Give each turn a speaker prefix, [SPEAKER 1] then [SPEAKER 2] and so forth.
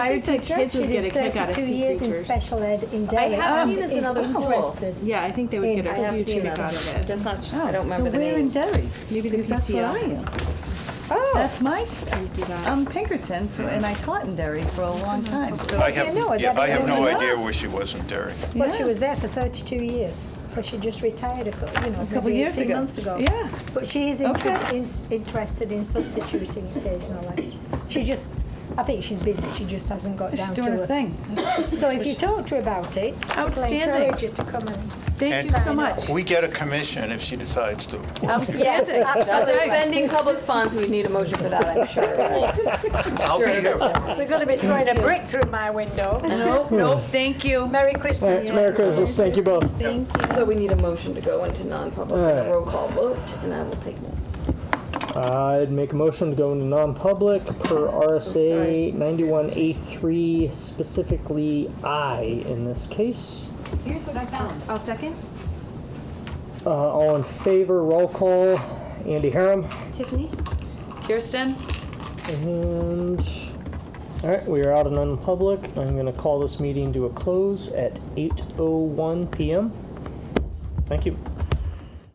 [SPEAKER 1] I think
[SPEAKER 2] teacher.
[SPEAKER 1] kids
[SPEAKER 3] She
[SPEAKER 1] would get a
[SPEAKER 3] did
[SPEAKER 1] kick out of
[SPEAKER 3] 32
[SPEAKER 1] sea
[SPEAKER 3] years in
[SPEAKER 1] creatures.
[SPEAKER 3] special ed in Derry.
[SPEAKER 2] have
[SPEAKER 3] and
[SPEAKER 2] seen this in
[SPEAKER 3] is
[SPEAKER 2] other schools.
[SPEAKER 3] interested.
[SPEAKER 1] Yeah, I think they would get
[SPEAKER 3] I
[SPEAKER 1] a
[SPEAKER 3] have
[SPEAKER 1] huge
[SPEAKER 2] seen
[SPEAKER 1] kick
[SPEAKER 2] them.
[SPEAKER 1] out of it.
[SPEAKER 2] Just not,
[SPEAKER 4] Oh,
[SPEAKER 2] I don't remember the
[SPEAKER 4] So we're in
[SPEAKER 2] name.
[SPEAKER 4] Derry.
[SPEAKER 1] Maybe the
[SPEAKER 4] because that's where I
[SPEAKER 1] PTO.
[SPEAKER 4] am.
[SPEAKER 1] Oh,
[SPEAKER 4] That's my, I'm Pinkerton, so, and I taught in Derry for a long time, so.
[SPEAKER 5] I have,
[SPEAKER 3] no,
[SPEAKER 5] yeah,
[SPEAKER 3] that
[SPEAKER 5] I have
[SPEAKER 3] is
[SPEAKER 5] no
[SPEAKER 3] enough.
[SPEAKER 5] idea where she was in Derry.
[SPEAKER 3] Well, she
[SPEAKER 4] Yeah.
[SPEAKER 3] was there for 32 years, but she just retired a couple, you know,
[SPEAKER 4] couple
[SPEAKER 3] maybe
[SPEAKER 4] years
[SPEAKER 3] 18
[SPEAKER 4] ago.
[SPEAKER 3] months ago.
[SPEAKER 4] Yeah.
[SPEAKER 3] But she is inter-
[SPEAKER 4] Okay.
[SPEAKER 3] in- interested in substituting occasionally. She just, I think she's busy, she just hasn't got
[SPEAKER 4] She's
[SPEAKER 3] down
[SPEAKER 4] doing
[SPEAKER 3] to
[SPEAKER 4] her
[SPEAKER 3] it.
[SPEAKER 4] thing.
[SPEAKER 3] So if you talk to her about it, I'll
[SPEAKER 1] Outstanding.
[SPEAKER 3] encourage her to come and.
[SPEAKER 4] Thank
[SPEAKER 5] And-
[SPEAKER 4] you so much.
[SPEAKER 5] We get a commission if she decides to.
[SPEAKER 4] Outstanding.
[SPEAKER 2] Now, they're spending public funds, we need a motion for that, I'm sure.
[SPEAKER 5] I'll be there.
[SPEAKER 6] They're going to be throwing a brick through my window.
[SPEAKER 4] Nope, nope, thank you.
[SPEAKER 6] Merry Christmas. to
[SPEAKER 7] Merry Christmas, thank you both.
[SPEAKER 2] So we need a motion to go into non-public, and
[SPEAKER 7] All
[SPEAKER 2] a
[SPEAKER 7] right.
[SPEAKER 2] roll call vote, and I will take notes.
[SPEAKER 7] I'd make a motion to go into non-public per RSA 91A3, specifically I in this case.
[SPEAKER 1] here's what I found. I'll second.
[SPEAKER 7] Uh, All in favor, roll call, Andy Harum.
[SPEAKER 1] Tiffany?
[SPEAKER 4] Kirsten?
[SPEAKER 7] And, all right, we are out of non-public. I'm going to oh call this meeting to a close at 8:01 PM. Thank you.